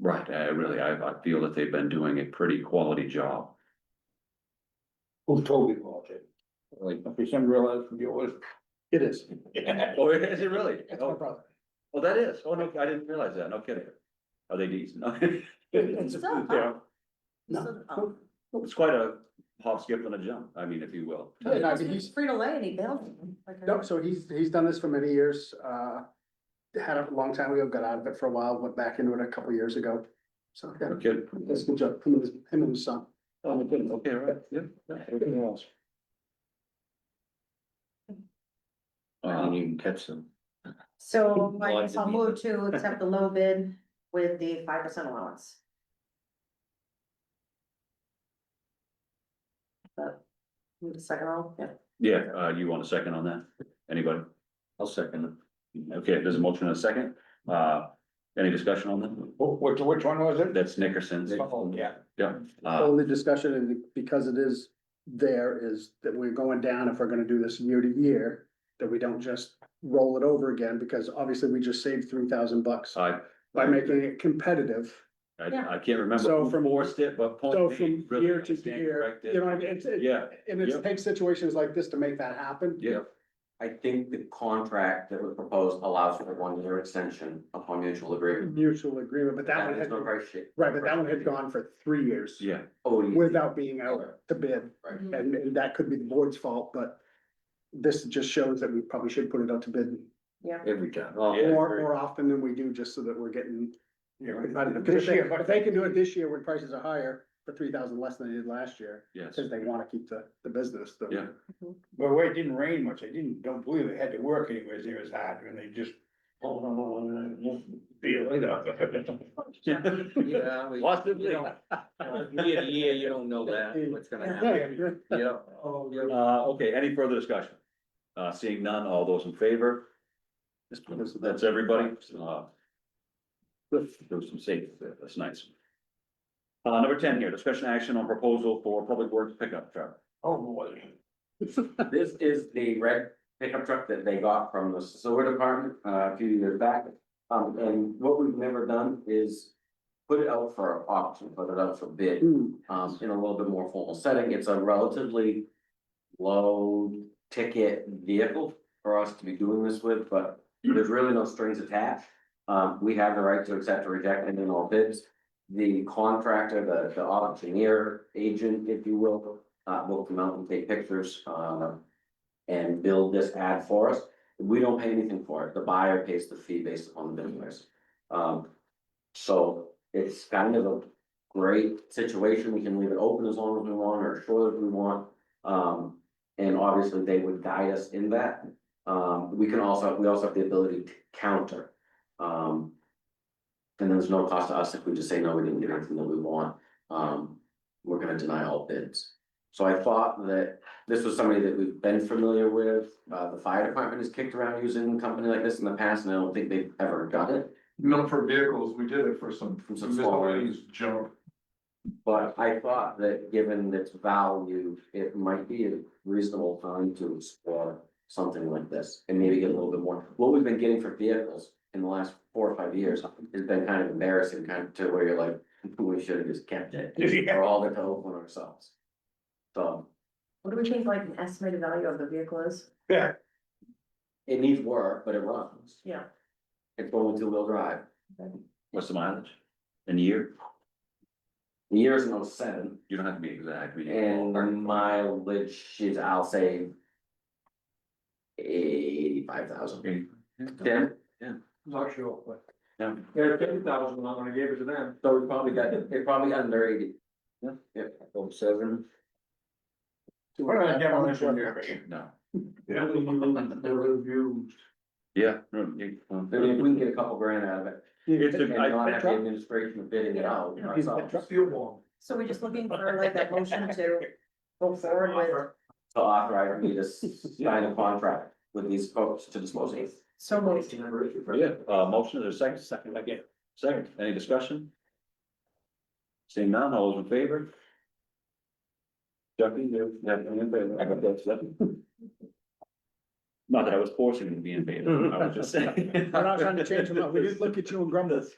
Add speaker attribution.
Speaker 1: Right, I Uh, really, I, I feel that they've been doing a pretty quality job.
Speaker 2: Who told me about it?
Speaker 1: Like,
Speaker 2: If you soon realize from yours. It is.
Speaker 1: oh, is it really?
Speaker 2: That's my
Speaker 1: Oh,
Speaker 2: brother.
Speaker 1: oh, that is, oh, no, I didn't realize that, no kidding. Are they decent? No.
Speaker 2: It's a food town.
Speaker 3: So, um,
Speaker 2: No.
Speaker 1: It's quite a hop, skip and a jump, I mean, if you will.
Speaker 2: Yeah, no, I mean,
Speaker 3: It's
Speaker 2: he's-
Speaker 3: Frito Lay and he built them. like I-
Speaker 4: No, so he's, he's done this for many years, uh, had it a long time ago, got out of it for a while, went back into it a couple years ago. So, yeah,
Speaker 1: No kidding.
Speaker 4: that's a good job, him and his, him and his son.
Speaker 1: Oh, my goodness, okay, right, yeah. yeah.
Speaker 2: Everything else.
Speaker 1: Um,
Speaker 2: you can catch them.
Speaker 3: So
Speaker 1: Well, I
Speaker 3: I guess I'll
Speaker 1: didn't
Speaker 3: move to accept the low bid with the five percent allowance. But, move to second row, yeah.
Speaker 1: yeah, uh, you want a second on that? Anybody? I'll second it. Okay, there's a motion and a second, uh, any discussion on that?
Speaker 2: Which, which one was it?
Speaker 1: That's Nickerson's.
Speaker 2: Oh, yeah.
Speaker 1: Yeah, uh,
Speaker 4: Only discussion, and because it is there, is that we're going down, if we're gonna do this year to year, that we don't just roll it over again, because obviously we just saved three thousand bucks
Speaker 1: I,
Speaker 4: by making it competitive.
Speaker 1: I, I can't remember
Speaker 4: So
Speaker 1: who
Speaker 4: from-
Speaker 1: forced it, but. point
Speaker 4: So
Speaker 1: made,
Speaker 4: from
Speaker 1: really,
Speaker 4: year to
Speaker 1: I stand
Speaker 4: year,
Speaker 1: corrected.
Speaker 4: you know, it's, it-
Speaker 1: Yeah,
Speaker 4: and it
Speaker 1: Yeah.
Speaker 4: takes situations like this to make that happen.
Speaker 1: yeah,
Speaker 5: I think the contract that was proposed allows for a one-year extension upon mutual agreement.
Speaker 4: Mutual agreement, but that one
Speaker 5: is
Speaker 4: had,
Speaker 5: no price sheet.
Speaker 4: right, but that one had gone for three years.
Speaker 1: yeah,
Speaker 5: Oh, yeah.
Speaker 4: without being out to bid,
Speaker 5: Right.
Speaker 3: Mhm.
Speaker 4: and, and that could be the board's fault, but this just shows that we probably should put it out to bid
Speaker 3: Yeah,
Speaker 2: Every time.
Speaker 1: Yeah, I
Speaker 4: more,
Speaker 1: agree.
Speaker 4: more often than we do, just so that we're getting. you know, competitive. 'Cause
Speaker 2: This
Speaker 4: If they-
Speaker 2: year, but-
Speaker 4: if they can do it this year when prices are higher, for three thousand less than they did last year,
Speaker 1: yes,
Speaker 4: because they wanna keep the, the business, the.
Speaker 1: Yeah.
Speaker 2: But where it didn't rain much, I didn't, don't believe it had to work anyways, it was hard, and they just. oh, no, no, no, no, no, Feel it up.
Speaker 6: Yeah, we,
Speaker 1: Possibly.
Speaker 6: you don't- year to year, you don't know that, what's gonna happen, yeah.
Speaker 2: Oh, yeah.
Speaker 1: Uh, okay, any further discussion? Uh, seeing none, all those in favor? That's everybody, uh. There was some safe, there, that's nice. Uh, number ten here, discussion action on proposal for public works pickup truck.
Speaker 2: Oh, boy.
Speaker 5: This is the red pickup truck that they got from the sewer department uh, a few years back. Um, and what we've never done is put it out for auction, put it out for bid,
Speaker 4: Hmm,
Speaker 5: um, in a little bit more formal setting. It's a relatively low ticket vehicle for us to be doing this with, but there's really no strings attached. Um, we have the right to accept or reject any and all bids. The contractor, the, the auctioneer agent, if you will, uh, will come out and take pictures, um, and build this ad for us. We don't pay anything for it. The buyer pays the fee based upon the bid price. Um, so it's kind of a great situation. We can leave it open as long as we want or short if we want. Um, and obviously they would guide us in that. Um, we can also, we also have the ability to counter. Um, and there's no cost to us if we just say, no, we didn't get anything that we want. Um, we're gonna deny all bids. So I thought that this was somebody that we've been familiar with. Uh, the fire department has kicked around using a company like this in the past and I don't think they've ever done it.
Speaker 7: Not for vehicles, we did it for some
Speaker 5: For some small
Speaker 7: miscellaneous junk.
Speaker 5: But I thought that given its value, it might be a reasonable time to explore something like this and maybe get a little bit more. What we've been getting for vehicles in the last four or five years has been kind of embarrassing, kind of to where you're like, we should have just kept it.
Speaker 2: Yeah.
Speaker 5: Or all the help on ourselves. So
Speaker 3: what do we think like an estimated value of the vehicle is?
Speaker 2: Yeah,
Speaker 5: it needs work, but it runs.
Speaker 3: Yeah.
Speaker 5: It's only two-wheel drive.
Speaker 1: What's the mileage? In a year?
Speaker 5: The Years in oh seven
Speaker 1: You don't have to be exact. we need a
Speaker 5: and
Speaker 1: ballpark.
Speaker 5: mileage is, I'll say. Eighty-five thousand.
Speaker 1: Okay.
Speaker 5: Then
Speaker 6: Not sure, but.
Speaker 1: Yeah.
Speaker 6: Yeah, ten thousand, I'm gonna give it to them.
Speaker 5: So we probably got, it probably got under eighty.
Speaker 6: Oh, seven.
Speaker 2: what did I get on this one here?
Speaker 1: No,
Speaker 7: Yeah.
Speaker 1: yeah, no, you- um,
Speaker 5: I mean, if we can get a couple grand out of it
Speaker 1: It's
Speaker 5: and
Speaker 1: a, I,
Speaker 5: not have the administration of bidding it out ourselves.
Speaker 6: Steel ball.
Speaker 3: So we're just looking for like that motion to go forward with,
Speaker 5: To authorize me to s- sign a contract with these folks to dispose of. it.
Speaker 3: so moved.
Speaker 1: yeah, uh, motion, there's a second, second, again, second, any discussion? Seeing none, all those in favor? Chucky, you have any in favor? I got that, so. Not that I was forcing you to be in favor, I was just saying.
Speaker 4: We're not trying to change them up, we did look at you and grumble.